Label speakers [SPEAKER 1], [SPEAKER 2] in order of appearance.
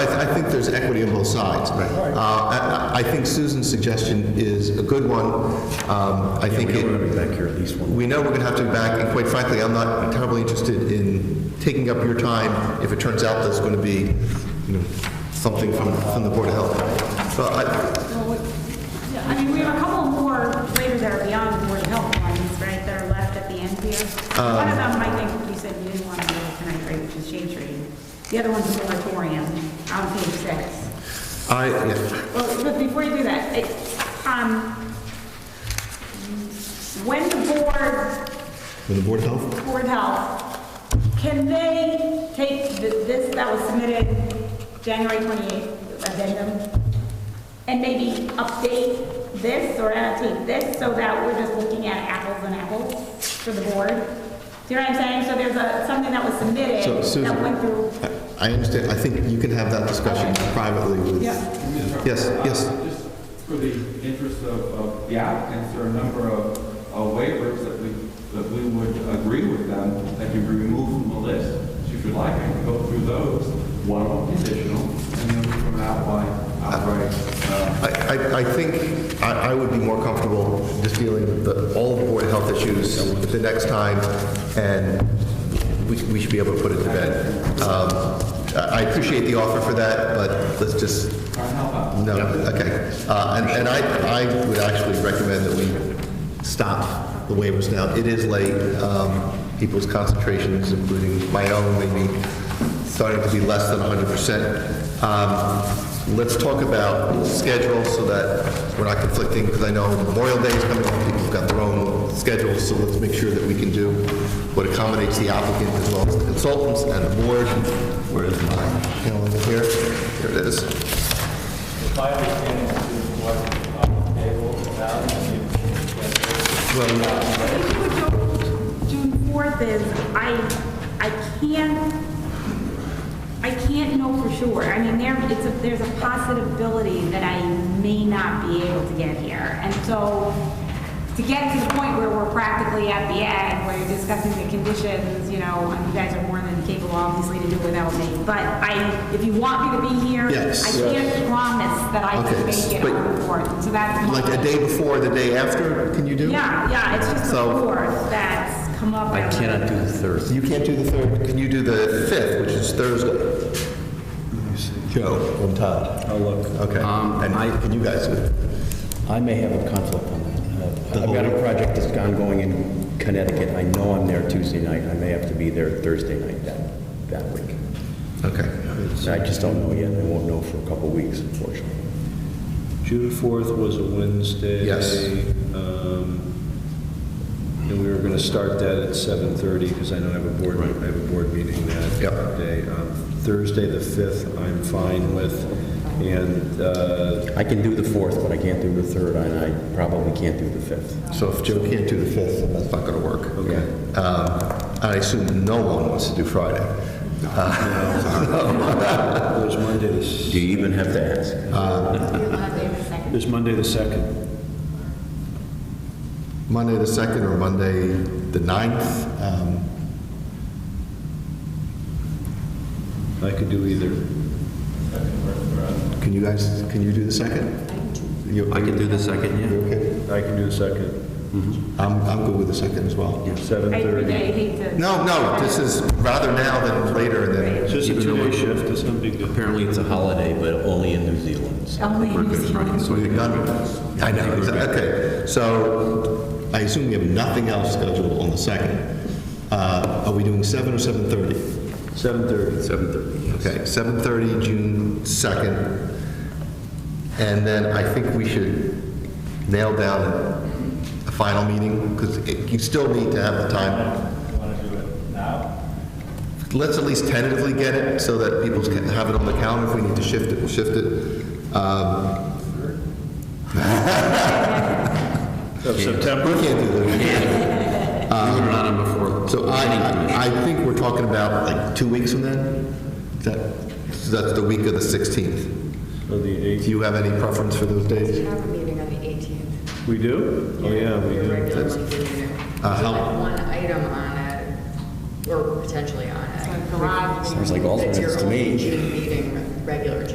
[SPEAKER 1] there's equity on both sides. Right. Uh, I, I think Susan's suggestion is a good one. Um, I think
[SPEAKER 2] We're
[SPEAKER 1] it,
[SPEAKER 2] going to be back here at least one.
[SPEAKER 1] we know we're going to have to be back, and quite frankly, I'm not terribly interested in taking up your time if it turns out there's going to be, you know, something from, from the Board of Health. So I,
[SPEAKER 3] Well, we- yeah, I mean, we have a couple more later that are beyond the Board of Health ones, right, that are left at the end here. One of them, I think, you said you didn't want to do tonight, right, which is shade tree. The other one's a moratorium on page six.
[SPEAKER 1] I, yeah,
[SPEAKER 3] Well, but before you do that, it, um, when the board
[SPEAKER 1] from the Board of Health?
[SPEAKER 3] Board of Health, can they take th- this that was submitted January 28th addendum and maybe update this or annotate this so that we're just looking at apples and apples for the board? Do you know what I'm saying? So there's a, something that was
[SPEAKER 1] So
[SPEAKER 3] submitted that went through.
[SPEAKER 1] Susan, I I understand, I think you can have that discussion privately with.
[SPEAKER 3] Yeah.
[SPEAKER 1] Yes,
[SPEAKER 4] Uh,
[SPEAKER 1] yes.
[SPEAKER 4] Just for the interest of, of the applicants, there are a number of, of waivers that we, that we would agree with them, that can be removed from the list. So if you like, I can go through those, one conditional, and then we can outline, outright, uh,
[SPEAKER 1] I, I, I think I, I would be more comfortable just dealing with the, all the Board of Health issues the next time, and we, we should be able to put it to bed. Um, I I appreciate the offer for that, but let's just, no, okay. Uh, and, and I, I would actually recommend that we stop the waivers now. It is late, um, people's concentrations, including my own, maybe starting to be less than hundred percent. Um, Let's talk about schedule so that we're not conflicting, because I know Memorial Day is coming up, people have got their own schedules, so let's make sure that we can do what accommodates the applicant as well as the consultants and the board. Where is my calendar here? Here it is.
[SPEAKER 5] My understanding is what um, they will allow you to
[SPEAKER 1] Well,
[SPEAKER 3] If you would go June 4th is, I, I can't, I can't know for sure. I mean, there, it's a, there's a possibility that I may not be able to get here. And so to get to the point where we're practically at the end, where you're discussing the conditions, you know, and you guys are more than capable, obviously, to do it without me. But I, if you want me to be here, I
[SPEAKER 1] Yes.
[SPEAKER 3] can't promise that I
[SPEAKER 1] Okay,
[SPEAKER 3] can make it
[SPEAKER 1] but-
[SPEAKER 3] on the 4th. So that's. my-
[SPEAKER 1] like a day before, the day after, can you do?
[SPEAKER 3] yeah, yeah, it's just the
[SPEAKER 1] So-
[SPEAKER 3] fourth that's come up.
[SPEAKER 2] I cannot do the third.
[SPEAKER 1] You can't do the third, can you do the fifth, which is Thursday? Joe and Todd.
[SPEAKER 2] I'll look.
[SPEAKER 1] Okay,
[SPEAKER 2] Um,
[SPEAKER 1] and
[SPEAKER 2] I-
[SPEAKER 1] can you guys do it?
[SPEAKER 2] I may have a conflict on that.
[SPEAKER 1] The
[SPEAKER 2] Uh, I've got
[SPEAKER 1] whole-
[SPEAKER 2] a project that's ongoing in Connecticut. I know I'm there Tuesday night. I may have to be there Thursday night that, that week.
[SPEAKER 1] Okay.
[SPEAKER 2] I just don't know yet. I won't know for a couple weeks, unfortunately.
[SPEAKER 6] June 4th was a Wednesday.
[SPEAKER 1] Yes.
[SPEAKER 6] um, And we were going to start that at 7:30 because I don't have a board, I have a board meeting
[SPEAKER 1] Yep.
[SPEAKER 6] that day. Um, Thursday, the 5th, I'm fine with, and uh,
[SPEAKER 2] I can do the fourth, but I can't do the third, and I probably can't do the fifth.
[SPEAKER 1] So if Joe can't do the 5th, then that's not going to work.
[SPEAKER 6] Okay.
[SPEAKER 1] Um, I assume no one wants to do Friday.
[SPEAKER 6] there's Monday, the s-
[SPEAKER 2] Do you even have to ask?
[SPEAKER 6] there's Monday the 2nd.
[SPEAKER 1] Monday the 2nd or Monday the 9th? Um,
[SPEAKER 6] I could do either.
[SPEAKER 1] Can you guys, can you do the 2nd? You-
[SPEAKER 7] I can do the second, yeah.
[SPEAKER 1] You okay?
[SPEAKER 6] I can do the 2nd,
[SPEAKER 1] I'm, I'm good with the 2nd as well.
[SPEAKER 3] I I
[SPEAKER 6] 7:30.
[SPEAKER 3] hate to.
[SPEAKER 1] No, no, this is rather now than later and then.
[SPEAKER 6] It's just a
[SPEAKER 7] Even though
[SPEAKER 6] two-day
[SPEAKER 7] I-
[SPEAKER 6] shift, it's not big deal.
[SPEAKER 2] Apparently, it's a holiday, but only in New Zealand, so.
[SPEAKER 3] Only
[SPEAKER 7] We're
[SPEAKER 3] in New
[SPEAKER 7] good, right,
[SPEAKER 3] Zealand.
[SPEAKER 7] so I
[SPEAKER 1] We've
[SPEAKER 7] think-
[SPEAKER 1] done, I know, exa- okay. So I assume we have nothing else scheduled on the 2nd. Uh, Are we doing 7 or 7:30?
[SPEAKER 6] 7:30.
[SPEAKER 7] 7:30, yes.
[SPEAKER 1] Okay, 7:30, June 2nd. And then I think we should nail down a final meeting, because you still need to have the time.
[SPEAKER 5] Want to do it now?
[SPEAKER 1] Let's at least tentatively get it, so that people can have it on the calendar. If we need to shift it, we'll shift it. Um,
[SPEAKER 6] Of September.
[SPEAKER 1] We can't do that. Um,
[SPEAKER 7] We were not on before.
[SPEAKER 1] So I, I I think we're talking about like two weeks from then? That, so that's the week of the 16th.
[SPEAKER 6] Or the
[SPEAKER 1] Do
[SPEAKER 6] 8th.
[SPEAKER 1] you have any preference for those days?
[SPEAKER 8] We have a meeting on the 18th.
[SPEAKER 6] We do? Oh, yeah, we
[SPEAKER 8] We're
[SPEAKER 6] do.
[SPEAKER 8] regularly meeting.
[SPEAKER 1] Uh,
[SPEAKER 8] There's
[SPEAKER 1] how-
[SPEAKER 8] like one item on it, or potentially on it.
[SPEAKER 3] Garage.
[SPEAKER 2] Sounds like alternates to me.
[SPEAKER 8] It's your only June meeting,